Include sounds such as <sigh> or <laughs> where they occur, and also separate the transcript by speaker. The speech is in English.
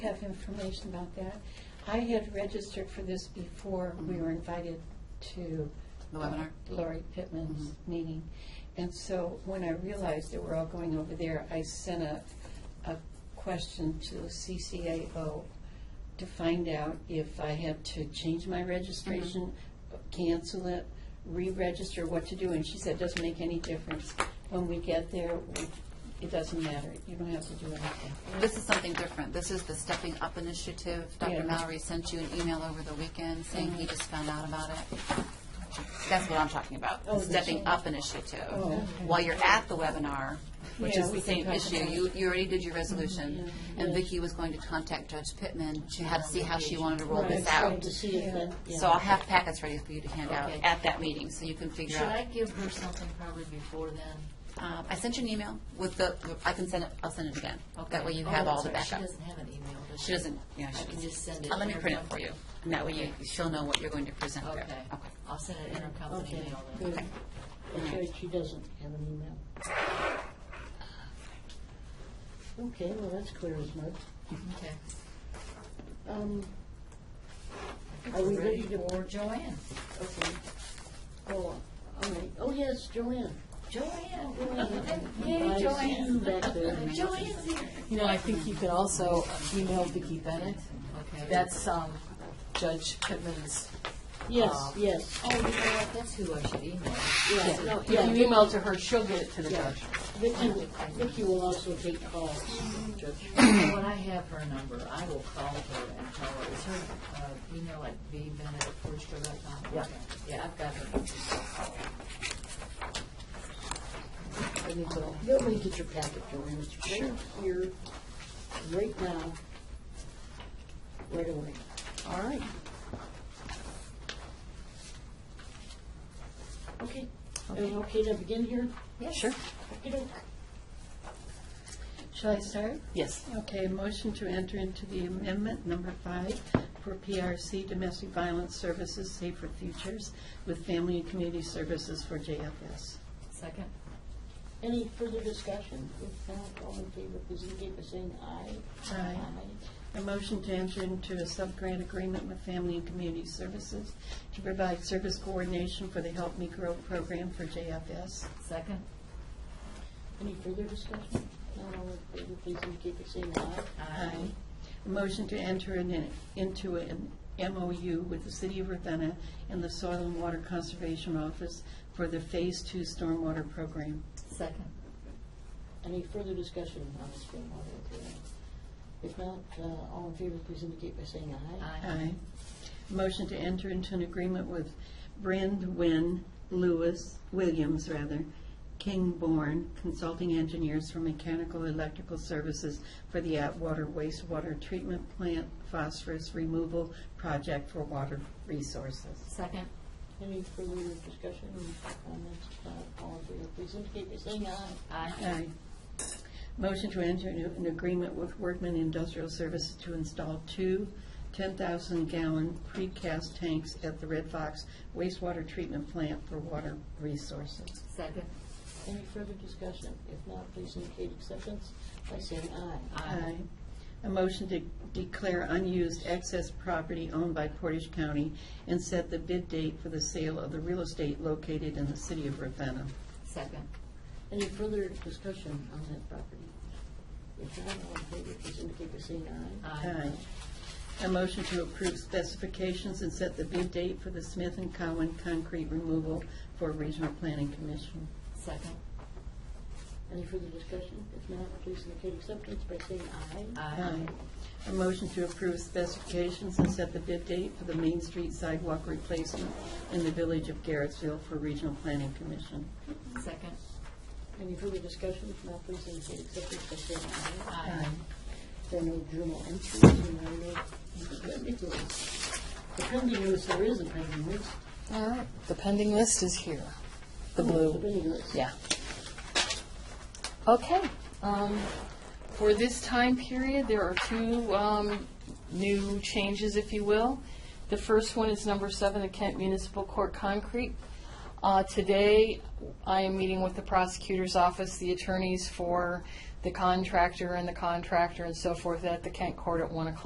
Speaker 1: have information about that. I had registered for this before we were invited to.
Speaker 2: Mm-hmm. The webinar? Mm-hmm.
Speaker 1: Lori Pittman's meeting. And so when I realized that we're all going over there, I sent a, a question to CCAO to find out if I had to change my registration,
Speaker 2: Mm-hmm.
Speaker 1: cancel it, re-register, what to do. And she said, it doesn't make any difference. When we get there, we- it doesn't matter. You don't have to do anything.
Speaker 2: This is something different. This is the Stepping Up Initiative.
Speaker 1: Yeah.
Speaker 2: Dr. Mallory sent you an email over the weekend saying he just found out about it. That's what I'm talking about, the
Speaker 1: Oh, did you?
Speaker 2: Stepping Up Initiative.
Speaker 1: Oh, okay.
Speaker 2: While you're at the webinar, which
Speaker 1: Yeah,
Speaker 2: is
Speaker 1: we
Speaker 2: the
Speaker 1: can
Speaker 2: same
Speaker 1: talk
Speaker 2: issue,
Speaker 1: about Mm-hmm.
Speaker 2: you, you already did your resolution, and
Speaker 3: Yeah.
Speaker 2: Vicki was going to contact Judge Pittman. She had to see how she wanted to roll
Speaker 1: Right,
Speaker 2: this
Speaker 1: so
Speaker 2: out.
Speaker 3: To see if that, yeah.
Speaker 2: So I'll have packets ready for you to hand out
Speaker 3: Okay.
Speaker 2: at that meeting, so you can figure
Speaker 3: Should I
Speaker 2: out.
Speaker 3: give her something probably before then?
Speaker 2: Um, I sent you an email with the, I can send it, I'll send it again. That way you have all the
Speaker 3: Oh, that's
Speaker 2: backup.
Speaker 3: right. She doesn't have an email, does she?
Speaker 2: She doesn't, yeah, she
Speaker 3: I can
Speaker 2: doesn't.
Speaker 3: just send it.
Speaker 2: Uh, Let me print it
Speaker 3: intercom-
Speaker 2: for you, and that way you, she'll know what you're going to present there.
Speaker 3: Okay. I'll send it intercompany Okay, email then.
Speaker 2: Okay.
Speaker 3: Okay.
Speaker 2: Okay.
Speaker 3: Okay, she doesn't have an email.
Speaker 4: Okay, well, that's clear as mud. Um, Are we
Speaker 3: We're ready
Speaker 4: ready to-
Speaker 3: for Joanne?
Speaker 4: okay. Oh, all right. Oh, yes, Joanne.
Speaker 3: Joanne.
Speaker 4: I
Speaker 3: Yay,
Speaker 4: see you
Speaker 3: Joanne.
Speaker 4: back there.
Speaker 3: <laughs> Joanne's here.
Speaker 5: You know, I think you could also email Vicki Bennett.
Speaker 3: Okay.
Speaker 5: That's um, Judge Pittman's. uh,
Speaker 4: Yes, yes,
Speaker 3: Oh, you know what? That's who I should email.
Speaker 4: yeah, no,
Speaker 5: If
Speaker 4: yeah.
Speaker 5: you email to her, she'll get it to the
Speaker 4: Yeah.
Speaker 5: judge.
Speaker 4: Vicky, will- Vicky will also take calls, Judge.
Speaker 3: When I have her number, I will call her and tell her, is her uh, email at vbenedict@forestro.com?
Speaker 5: Yeah.
Speaker 3: Yeah, I've got her.
Speaker 4: Let me go. You'll make it your packet, Joanne. It's right here, right now, right away.
Speaker 5: All right.
Speaker 4: Okay. Are we okay to begin here?
Speaker 5: Sure.
Speaker 4: Okey-doke.
Speaker 1: Shall I start?
Speaker 5: Yes.
Speaker 1: Okay, motion to enter into the amendment number five for PRC Domestic Violence Services Safer Futures with Family and Community Services for JFS.
Speaker 3: Second?
Speaker 4: Any further discussion? If not, all in favor, please indicate by saying aye.
Speaker 1: Aye. A motion to enter into a sub-grant agreement with Family and Community Services to provide service coordination for the Help Me Grow program for JFS.
Speaker 3: Second?
Speaker 4: Any further discussion? Not all in favor, please indicate by saying aye.
Speaker 1: Aye. A motion to enter in- into an MOU with the City of Ravenna and the Soil and Water Conservation Office for the Phase Two Stormwater Program.
Speaker 3: Second?
Speaker 4: Any further discussion on this stormwater agreement? If not, uh, all in favor, please indicate by saying aye.
Speaker 1: Aye. Motion to enter into an agreement with Brandwin Lewis, Williams, rather, Kingborn Consulting Engineers for Mechanical Electrical Services for the Atwater Wastewater Treatment Plant Phosphorus Removal Project for Water Resources.
Speaker 3: Second?
Speaker 4: Any further discussion or comments? If not, uh, all in favor, please indicate by saying aye.
Speaker 3: Aye.
Speaker 1: Aye. Motion to enter into an agreement with Workman Industrial Services to install two 10,000-gallon precast tanks at the Red Fox wastewater treatment plant for water resources.
Speaker 3: Second?
Speaker 4: Any further discussion? If not, please indicate acceptance by saying aye.
Speaker 1: Aye. A motion to declare unused excess property owned by Portage County and set the bid date for the sale of the real estate located in the city of Ravenna.
Speaker 3: Second?
Speaker 4: Any further discussion on that property? If not, all in favor, please indicate by saying aye.
Speaker 1: Aye. A motion to approve specifications and set the bid date for the Smith and Cowan concrete removal for Regional Planning Commission.
Speaker 3: Second?
Speaker 4: Any further discussion? If not, please indicate acceptance by saying aye.
Speaker 3: Aye.
Speaker 1: A motion to approve specifications and set the bid date for the Main Street sidewalk replacement in the village of Garrettsville for Regional Planning Commission.
Speaker 3: Second?
Speaker 4: Any further discussion? If not, please indicate acceptance by saying aye.
Speaker 3: Aye.
Speaker 4: There are no journal entries, and there are no particulars. The pending list, there is a pending list.
Speaker 5: All right. The pending list is here. The
Speaker 4: The
Speaker 5: blue.
Speaker 4: pending list.
Speaker 5: Yeah. Okay. Um, For this time period, there are two um, new changes, if you will. The first one is number seven, the Kent Municipal Court concrete. Uh, Today, I am meeting with the prosecutor's office, the attorneys for the contractor and the contractor and so forth at the Kent Court at 1 o'clock.